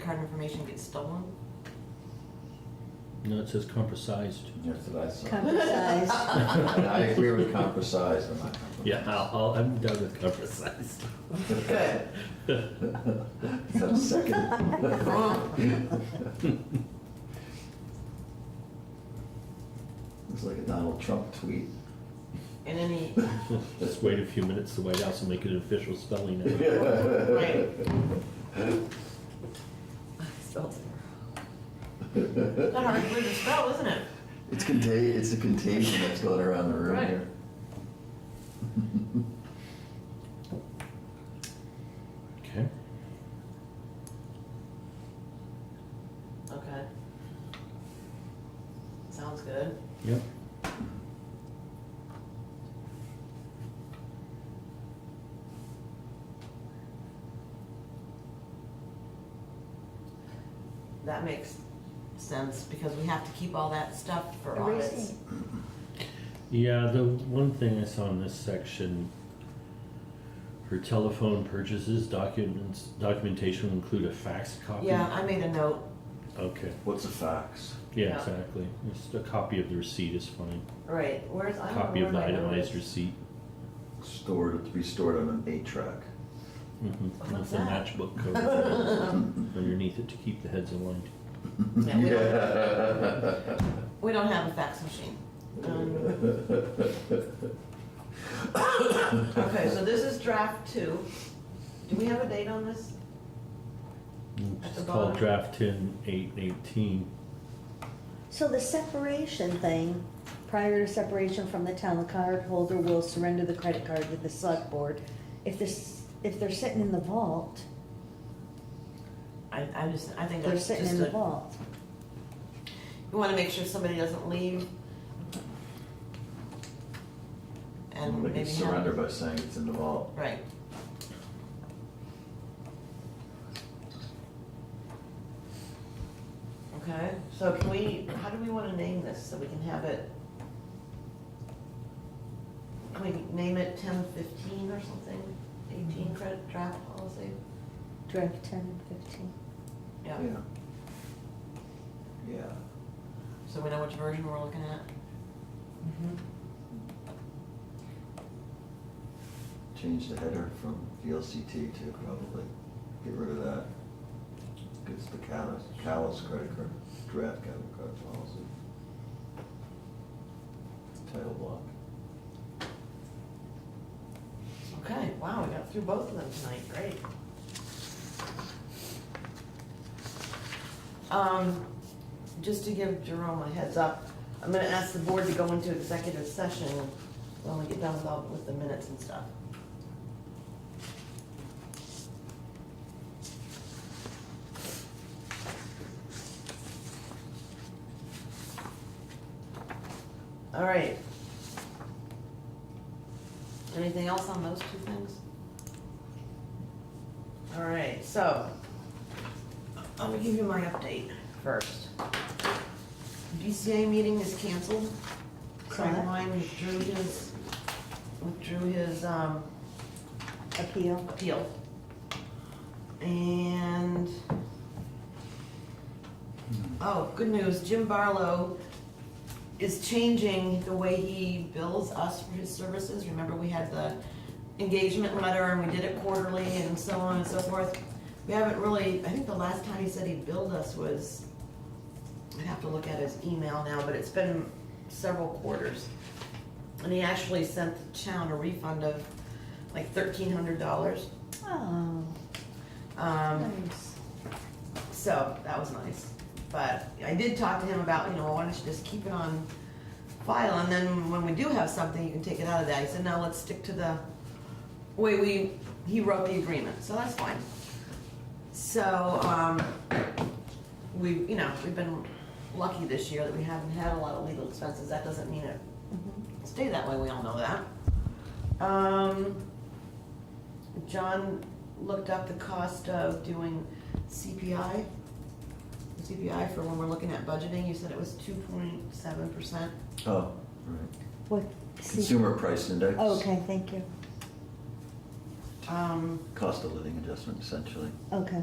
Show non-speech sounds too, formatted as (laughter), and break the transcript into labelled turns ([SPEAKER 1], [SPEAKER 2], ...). [SPEAKER 1] card information gets stolen?
[SPEAKER 2] No, it says compromised.
[SPEAKER 3] That's what I saw.
[SPEAKER 4] Compromised.
[SPEAKER 3] And I agree with compromise, I'm not compromised.
[SPEAKER 2] Yeah, I'll, I'll, I'm done with (laughs) compromised.
[SPEAKER 1] Good.
[SPEAKER 3] Is that a second? Looks like a Donald Trump tweet.
[SPEAKER 1] (laughs) And (laughs) any,
[SPEAKER 2] Just wait a few minutes, the White House will make it an official spelling. of it.
[SPEAKER 1] Right. it's a hard word to spell, isn't it?
[SPEAKER 3] It's contagion, it's a contagion that's going around the room
[SPEAKER 1] Right.
[SPEAKER 3] here.
[SPEAKER 2] Okay.
[SPEAKER 1] Okay. Sounds good.
[SPEAKER 2] Yep.
[SPEAKER 1] That makes sense because we have to keep all that stuff for audits.
[SPEAKER 4] Erasing.
[SPEAKER 2] Yeah, the one thing I saw in this section, for telephone purchases, documents, documentation will include a fax copy.
[SPEAKER 1] Yeah, I made a note,
[SPEAKER 2] Okay,
[SPEAKER 3] What's a fax?
[SPEAKER 2] yeah,
[SPEAKER 1] Yeah.
[SPEAKER 2] exactly. Just a copy of the receipt is fine.
[SPEAKER 1] right, where's, I don't know
[SPEAKER 2] Copy of the
[SPEAKER 1] where my note
[SPEAKER 2] itemized
[SPEAKER 1] is.
[SPEAKER 2] receipt.
[SPEAKER 3] Stored, to be stored on an eight track.
[SPEAKER 2] Mm-hmm.
[SPEAKER 1] What's
[SPEAKER 2] That's a
[SPEAKER 1] that?
[SPEAKER 2] matchbook code
[SPEAKER 1] (laughs)
[SPEAKER 3] (laughs)
[SPEAKER 2] underneath it to keep the heads aligned.
[SPEAKER 1] Yeah, we don't- We don't have a fax machine. Um, Okay, so this is draft two. Do we have a date on (laughs) this? At
[SPEAKER 2] It's
[SPEAKER 1] the
[SPEAKER 2] called
[SPEAKER 1] bottom.
[SPEAKER 2] draft ten eight eighteen.
[SPEAKER 4] So the separation thing, prior to separation from the town, the cardholder will surrender the credit card to the select board. If this, if they're sitting in the vault,
[SPEAKER 1] I, I just, I think
[SPEAKER 4] they're
[SPEAKER 1] that's
[SPEAKER 4] sitting
[SPEAKER 1] just
[SPEAKER 4] in the
[SPEAKER 1] a,
[SPEAKER 4] vault.
[SPEAKER 1] you wanna make sure somebody doesn't leave. And
[SPEAKER 3] They
[SPEAKER 1] maybe
[SPEAKER 3] can
[SPEAKER 1] have.
[SPEAKER 3] surrender by saying it's in the vault.
[SPEAKER 1] Right. Okay, so can we, how do we wanna name this, so we can have it? Can we name it ten fifteen or something, eighteen credit draft policy?
[SPEAKER 4] Draft ten and fifteen.
[SPEAKER 1] Yeah,
[SPEAKER 3] Yeah. Yeah.
[SPEAKER 1] so we know which version we're looking at?
[SPEAKER 3] Change the header from VLCT to probably, get rid of that. It's the callous, callous credit card, draft credit card policy. Title block.
[SPEAKER 1] Okay, wow, we got through both of them tonight, great. Um, just to give Jerome a heads up, I'm gonna ask the board to go into executive session when we get done with all, with the minutes and stuff. All right. Anything else on those two things? All right, so, I'm gonna give you my update first. DCA meeting is canceled. Craig
[SPEAKER 4] Correct.
[SPEAKER 1] Wine withdrew his, withdrew his, um,
[SPEAKER 4] Appeal.
[SPEAKER 1] appeal. And, oh, good news, Jim Barlow is changing the way he bills us for his services. Remember, we had the engagement letter and we did it quarterly and so on and so forth. We haven't really, I think the last time he said he billed us was, I'd have to look at his email now, but it's been several quarters. And he actually sent the town a refund of like thirteen hundred dollars.
[SPEAKER 4] Oh,
[SPEAKER 1] Um,
[SPEAKER 4] nice.
[SPEAKER 1] so that was nice. But I did talk to him about, you know, why don't you just keep it on file and then when we do have something, you can take it out of that. He said, no, let's stick to the way we, he wrote the agreement, so that's fine. So, um, we, you know, we've been lucky this year that we haven't had a lot of legal expenses. That doesn't mean it
[SPEAKER 4] Mhm.
[SPEAKER 1] stay that way, we all know that. Um, John looked up the cost of doing CPI. CPI for when we're looking at budgeting, you said it was two point seven percent.
[SPEAKER 3] Oh, right.
[SPEAKER 4] What?
[SPEAKER 3] Consumer price index.
[SPEAKER 4] Oh, Okay, thank you.
[SPEAKER 1] Um,
[SPEAKER 3] Cost of living adjustment essentially.
[SPEAKER 4] Okay.